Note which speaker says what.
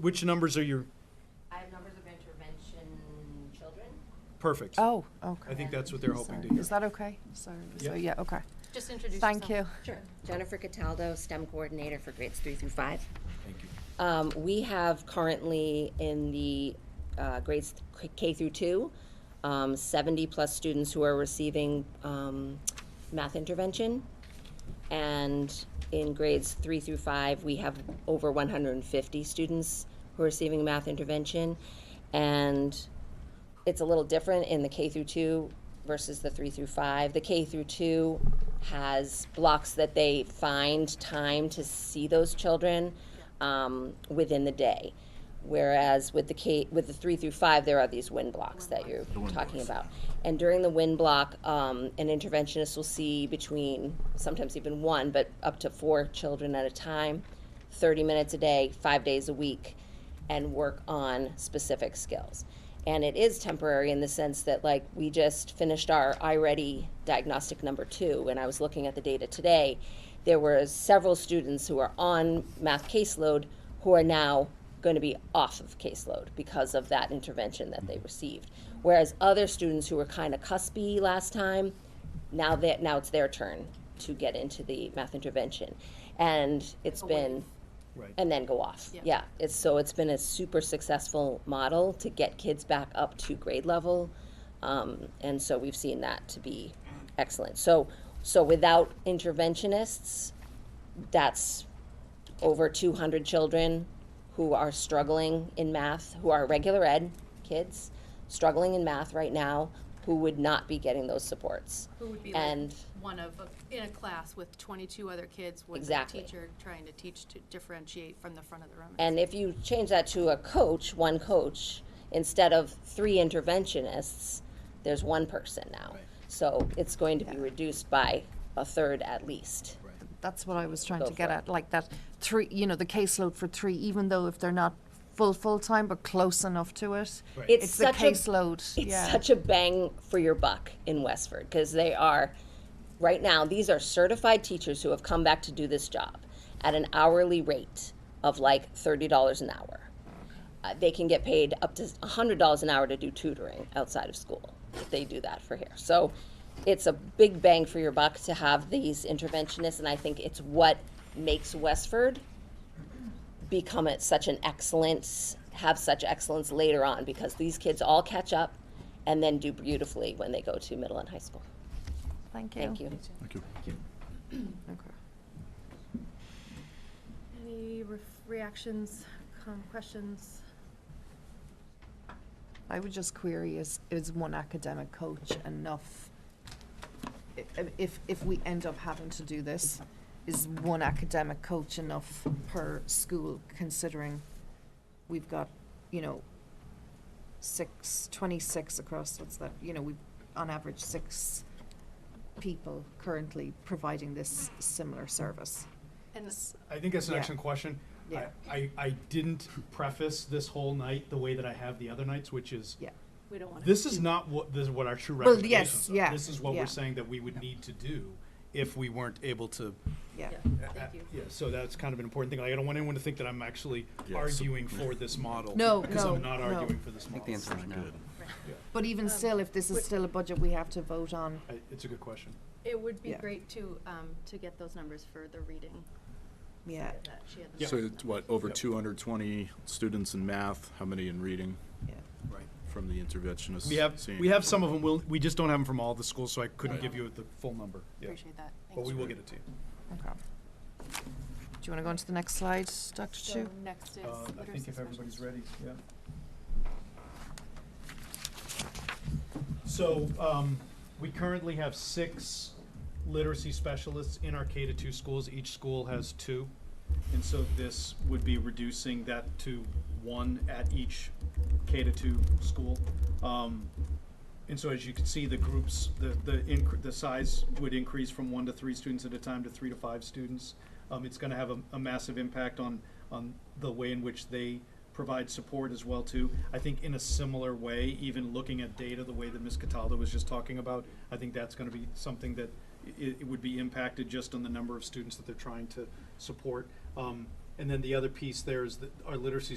Speaker 1: which numbers are your,
Speaker 2: I have numbers of intervention children,
Speaker 1: perfect.
Speaker 3: Oh, okay.
Speaker 1: I think that's what they're hoping to
Speaker 3: Sorry.
Speaker 1: hear.
Speaker 3: Is that okay? Sorry, so,
Speaker 1: Yeah.
Speaker 3: yeah, okay.
Speaker 2: just introduce
Speaker 3: Thank you.
Speaker 2: Sure. Jennifer Cataldo, STEM coordinator for grades three through five.
Speaker 1: Thank you.
Speaker 2: Um, we have currently in the uh, grades k- K through two, um, 70 plus students who are receiving um, math intervention. And in grades three through five, we have over 150 students who are receiving math intervention. And it's a little different in the K through two versus the three through five. The K through two has blocks that they find time to see those children um, within the day. Whereas with the K, with the three through five, there are these wind blocks that you're talking about. And during the wind block, um, an interventionist will see between, sometimes even one, but up to four children at a time, thirty minutes a day, five days a week and work on specific skills. And it is temporary in the sense that, like, we just finished our iReady diagnostic number two, and I was looking at the data today. There were several students who are on math caseload who are now going to be off of caseload because of that intervention that they received. Whereas other students who were kind of cuspy last time, now that now it's their turn to get into the math intervention, and it's been
Speaker 1: Right.
Speaker 2: and then go off. Yeah, it's, so it's been a super successful model to get kids back up to grade level. Um, and so we've seen that to be excellent. So, so without interventionists, that's over two hundred children who are struggling in math, who are regular ed kids, struggling in math right now, who would not be getting those supports.
Speaker 4: Who would be like
Speaker 2: And
Speaker 4: one of, a- in a class with twenty-two other kids with a
Speaker 2: Exactly.
Speaker 4: teacher trying to teach to differentiate from the front of the room.
Speaker 2: And if you change that to a coach, one coach, instead of three interventionists, there's one person now. So it's going to be reduced by a third at least.
Speaker 3: That's what I was trying to
Speaker 2: Go
Speaker 3: get
Speaker 2: for it.
Speaker 3: at, like that three, you know, the caseload for three, even though if they're not full, full-time, but close enough to it.
Speaker 1: Right.
Speaker 2: It's
Speaker 3: It's the
Speaker 2: such a-
Speaker 3: caseload,
Speaker 2: It's
Speaker 3: yeah.
Speaker 2: such a bang for your buck in Westford because they are, right now, these are certified teachers who have come back to do this job at an hourly rate of like $30 an hour. Uh, they can get paid up to $100 an hour to do tutoring outside of school. if They do that for here. So it's a big bang for your buck to have these interventionists, and I think it's what makes Westford become at such an excellence, have such excellence later on, because these kids all catch up and then do beautifully when they go to middle and high school.
Speaker 3: Thank you.
Speaker 2: Thank you.
Speaker 3: Okay.
Speaker 5: Any ref- reactions, com- questions?
Speaker 3: I would just query, is, is one academic coach enough? I- i- If, if we end up having to do this, is one academic coach enough per school considering we've got, you know, six, twenty-six across, what's that, you know, we, on average, six people currently providing this similar service.
Speaker 4: And
Speaker 1: I think that's an
Speaker 3: Yeah.
Speaker 1: excellent question. I,
Speaker 3: Yeah.
Speaker 1: I, I didn't preface this whole night the way that I have the other nights, which is,
Speaker 3: Yeah,
Speaker 4: we don't want to.
Speaker 1: this is not what, this is what our true
Speaker 3: Well,
Speaker 1: recommendations
Speaker 3: yes,
Speaker 1: are.
Speaker 3: yeah,
Speaker 1: This is what
Speaker 3: yeah.
Speaker 1: we're saying that we would need to do if we weren't able to. uh,
Speaker 3: yeah.
Speaker 4: Thank you.
Speaker 1: Yeah, so that's kind of an important thing. Like, I don't want anyone to think that I'm actually
Speaker 6: Yeah, so-
Speaker 1: arguing for this model.
Speaker 3: No,
Speaker 1: Because
Speaker 3: no,
Speaker 1: I'm not
Speaker 3: no.
Speaker 1: arguing for this model.
Speaker 6: The answer is no.
Speaker 3: Um, But even still, if this is still a budget we have to vote on,
Speaker 1: I- It's a good question.
Speaker 4: It would be
Speaker 3: Yeah.
Speaker 4: great to, um, to get those numbers for the reading
Speaker 3: yeah,
Speaker 4: that she had. the
Speaker 1: Yeah.
Speaker 6: So
Speaker 4: numbers
Speaker 6: it's what, over two hundred twenty students in math, how many in reading
Speaker 3: yeah.
Speaker 1: Right.
Speaker 6: from the interventionist?
Speaker 1: We have,
Speaker 6: scene?
Speaker 1: we have some of them, we'll, we just don't have them from all the schools, so I couldn't give you the full number.
Speaker 4: on.
Speaker 1: Yeah.
Speaker 4: Appreciate that.
Speaker 1: But
Speaker 4: Thanks.
Speaker 1: we will get it to you.
Speaker 3: Okay. Do you want to go on to the next slide, Dr. Chu?
Speaker 4: So next is
Speaker 1: Uh, I
Speaker 4: literacy
Speaker 1: think if
Speaker 4: specialists.
Speaker 1: everybody's ready, yeah. So, um, we currently have six literacy specialists in our K to two schools. Each school has two. And so this would be reducing that to one at each K to two school. Um, and so as you can see, the groups, the, the, incre- the size would increase from one to three students at a time to three to five students. Um, it's gonna have a, a massive impact on, on the way in which they provide support as well too. I think in a similar way, even looking at data, the way that Ms. Cataldo was just talking about, I think that's gonna be something that i- i- it would be impacted just on the number of students that they're trying to support. Um, and then the other piece there is that our literacy